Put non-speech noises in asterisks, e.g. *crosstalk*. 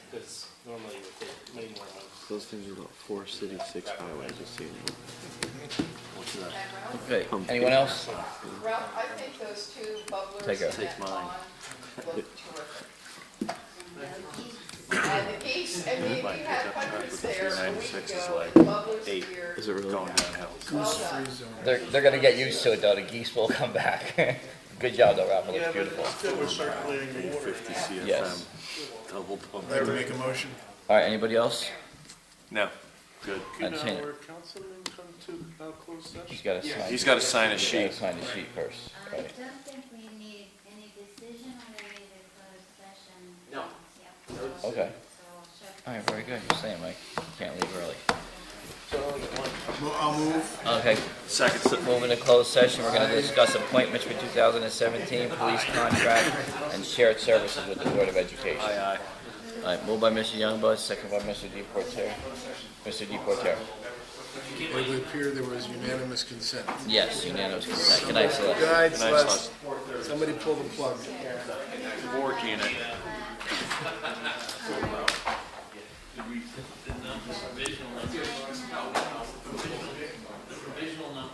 because normally it would take many more months. Those things are about four cities, six highways, just so you know. Okay, anyone else? Ralph, I think those two Take bubblers a- in Take that pond look terrific. And the geese, I mean, we had hundreds there a week ago, and bubblers here, Is it really? well done. They're, they're gonna get used to it though, the geese will come back. *laughs* Good job though, Ralph, it looks beautiful. still was circulating the water in that. Yes. Double pump. I'd like to make a motion. All right, anybody else? No, good. Could I've seen it. uh, our councilman come to a closed session? He's gotta sign. He's got to sign a he's gotta sheet. Sign the sheet first. Um, I Right. don't think we need any decision related to closed session. No. Yep. Okay. So I'll check All right, very good, you're saying, Mike, can't leave early. Mo- I'll move. Okay, Second. moving to closed session, we're gonna discuss appointments for 2017, police contract, and shared services with the Board of Education. Aye, aye. All right, moved by Mr. Youngblood, second by Mr. Deportaire. Mr. Deportaire. It would appear there was unanimous consent. Yes, unanimous consent. Good night, Celeste. Guys, Nice, let's- somebody pull the plug. Work unit. Did we, did not this provisional, let's uh,